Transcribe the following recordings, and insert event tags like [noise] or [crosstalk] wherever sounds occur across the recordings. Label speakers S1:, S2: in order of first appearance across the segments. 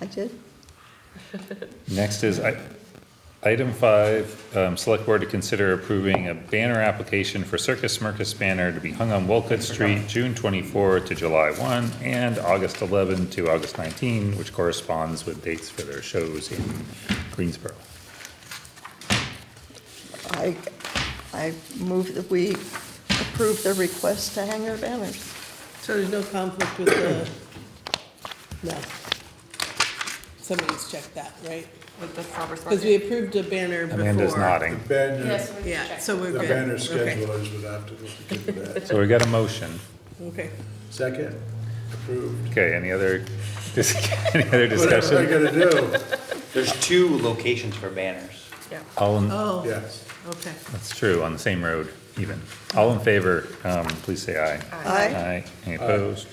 S1: I did.
S2: Next is i- item five, um, select board to consider approving a banner application for Circus Smirkus banner to be hung on Wolcott Street, June twenty-four to July one, and August eleven to August nineteen, which corresponds with dates for their shows in Greensboro.
S1: I, I move that we approve the request to hang their banners.
S3: So there's no conflict with the, no. Somebody's checked that, right?
S4: with the farmer's
S3: Because we
S4: market.
S3: approved a banner before.
S2: Amanda's nodding.
S5: The banner,
S4: Yes, we
S3: Yeah,
S4: checked.
S3: so we're
S5: the
S3: good.
S5: banner
S3: Okay,
S5: schedulers would have to look into that.
S4: [laughs]
S2: So we got a motion.
S3: Okay,
S5: Second, approved.
S2: Okay, any other, [laughs] dis- any other
S5: Whatever I
S2: discussion?
S5: gotta do,
S6: There's two locations for banners.
S2: All, in-
S3: oh,
S5: yes.
S3: okay.
S2: that's true, on the same road even. All in favor, um, please say aye.
S1: Aye.
S2: Aye. Any opposed?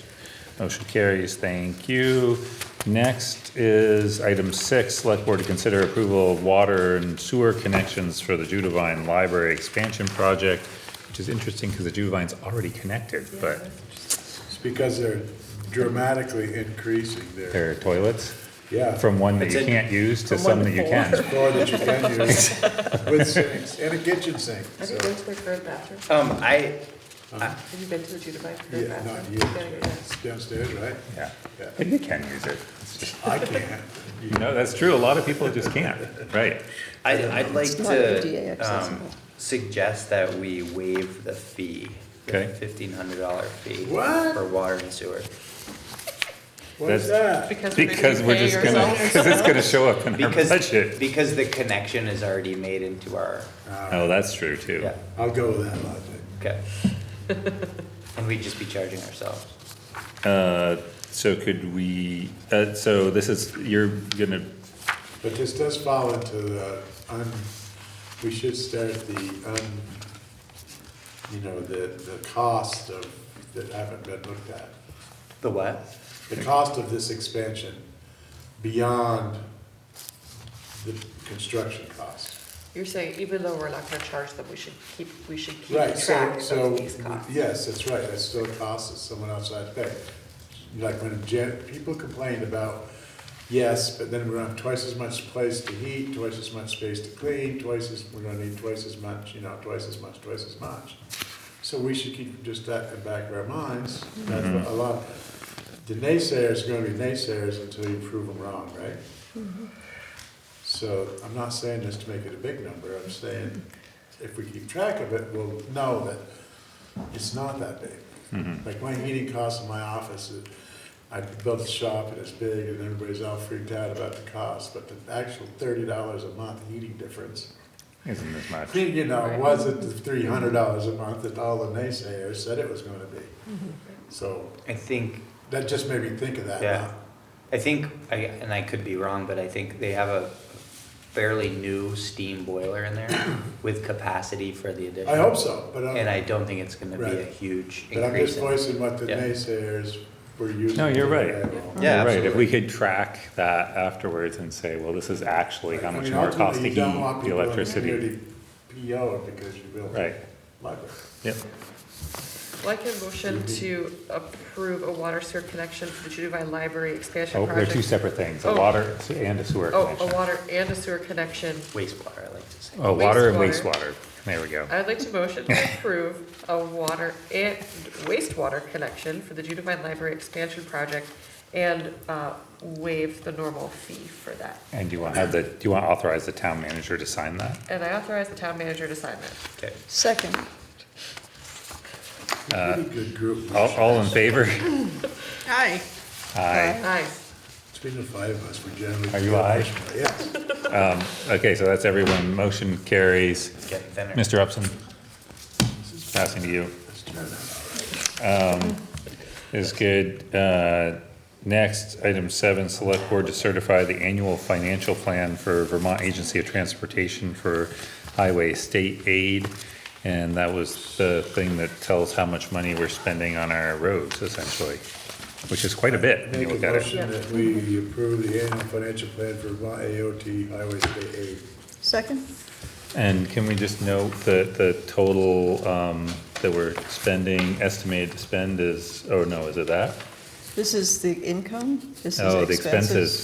S2: Motion carries, thank you. Next is item six, select board to consider approval of water and sewer connections for the Judavine Library Expansion Project, which is interesting because the Judavine's already connected, but
S5: It's because they're dramatically increasing their,
S2: there are toilets
S5: yeah,
S2: from one that
S6: It's
S2: you
S6: in-
S2: can't use to
S3: From
S2: some that
S3: one
S2: you
S3: to
S2: can.
S5: floor that you can
S2: [laughs]
S5: use with sinks and a kitchen sink,
S4: Have you
S5: so.
S4: been to their current bathroom?
S6: Um, I,
S4: Have you been to the Judavite current
S5: Yeah, not
S4: bathroom?
S5: used,
S4: You gotta
S5: right?
S4: get that.
S5: It's downstairs, right?
S2: Yeah,
S5: Yeah.
S2: but you can use it. It's just-
S5: I can't.
S2: You know, that's true, a lot of people just can't, right?
S6: I'd, I'd like
S1: It's not ADA
S6: to, um,
S1: accessible.
S6: suggest that we waive the fee.
S2: Okay.
S6: Fifteen hundred dollar fee.
S5: What?
S6: For water and sewer.
S5: What is
S2: That's-
S5: that?
S4: Because we're gonna
S2: Because we're
S4: pay
S2: just gonna, [laughs]
S4: ourselves.
S2: because it's gonna show up in our
S6: Because,
S2: budget.
S6: because the connection is already made into our,
S2: Oh, that's true too.
S6: yeah,
S5: I'll go with that logic.
S6: okay. And we'd just be charging ourselves.
S2: Uh, So could we, uh, so this is, you're gonna,
S5: But this does fall into the, un we should start the, un you know, the, the cost of, that haven't been looked at.
S6: The what?
S5: The cost of this expansion beyond the construction cost.
S4: You're saying even though we're not gonna charge them, we should keep, we should keep
S5: Right, so,
S4: track
S5: so,
S4: of these costs.
S5: yes, that's right, that's still costs that someone else had to pay. Like when gen, people complained about, yes, but then we're gonna have twice as much place to heat, twice as much space to clean, twice as, we're gonna need twice as much, you know, twice as much, twice as much. So we should keep just that in the back of our minds, that's what a lot, the naysayers are gonna be naysayers until you prove them wrong, right? So I'm not saying this to make it a big number, I'm saying if we keep track of it, we'll know that it's not that
S6: Mm-hmm.
S5: big. Like my heating costs in my office, is- I built a shop and it's big and everybody's all freaked out about the cost, but the actual thirty dollars a month heating difference, [laughs]
S2: isn't as much.
S5: you know, wasn't the three hundred dollars a month that all the naysayers said it was gonna be. So
S6: I think
S5: that just made me think of that.
S6: Yeah. I think, I, and I could be wrong, but I think they have a fairly new steam boiler in there with capacity for the addition.
S5: I hope so, but uh,
S6: And
S5: I'm,
S6: I don't think it's gonna be a
S5: Right.
S6: huge
S5: but I'm just
S6: increase. in-
S5: voicing what the
S6: Yeah.
S5: naysayers were using.
S2: No, you're
S5: to
S2: right.
S5: their level.
S6: Yeah,
S2: You're Right, if we
S6: absolutely.
S2: could track that afterwards and say, well, this is actually how
S5: I
S2: much
S5: mean,
S2: more it costs to
S5: ultimately,
S2: heat
S5: you don't want
S2: the
S5: people in
S2: electricity.
S5: community PO because you built
S2: Right,
S5: a library.
S2: yep,
S4: I'd Like a motion to approve a water sewer connection for the Judavine Library expansion
S2: oh, they're two
S4: project.
S2: separate things, a
S4: Oh.
S2: water and a sewer
S4: Oh, a
S2: connection.
S4: water and a sewer connection.
S6: Wastewater, I like to say.
S2: Oh, water and
S4: wastewater.
S2: wastewater, there we go.
S4: I'd like to motion to approve a water and wastewater connection for the Judavine Library expansion project and uh, waive the normal fee for that.
S2: And do you want to have the, do you want to authorize the town manager to sign that?
S4: And I authorize the town manager to sign that.
S6: Okay.
S1: Second,
S5: Pretty good group.
S2: Uh, All, all in favor? [laughs]
S3: Hi,
S2: Aye.
S4: Aye.
S5: Between the five of us, we generally.
S2: Are you aye?
S5: Yes.
S2: Okay, so that's everyone, motion carries.
S6: Okay, then-
S2: Mr. Upson, passing to you.
S5: Let's turn that
S2: is good. Uh, Next, item seven, select board to certify the annual financial plan for Vermont Agency of Transportation for Highway State Aid. And that was the thing that tells how much money we're spending on our roads essentially, which is quite a bit
S5: out.
S2: when you
S5: Make
S2: look
S5: a
S2: at it.
S5: motion that we approve the annual financial plan for Vermont AOT Highway State Aid.
S1: second,
S2: And can we just note that the total um, that we're spending, estimated to spend is, oh no, is it that?
S1: this is the income, this is
S2: Oh, the expenses.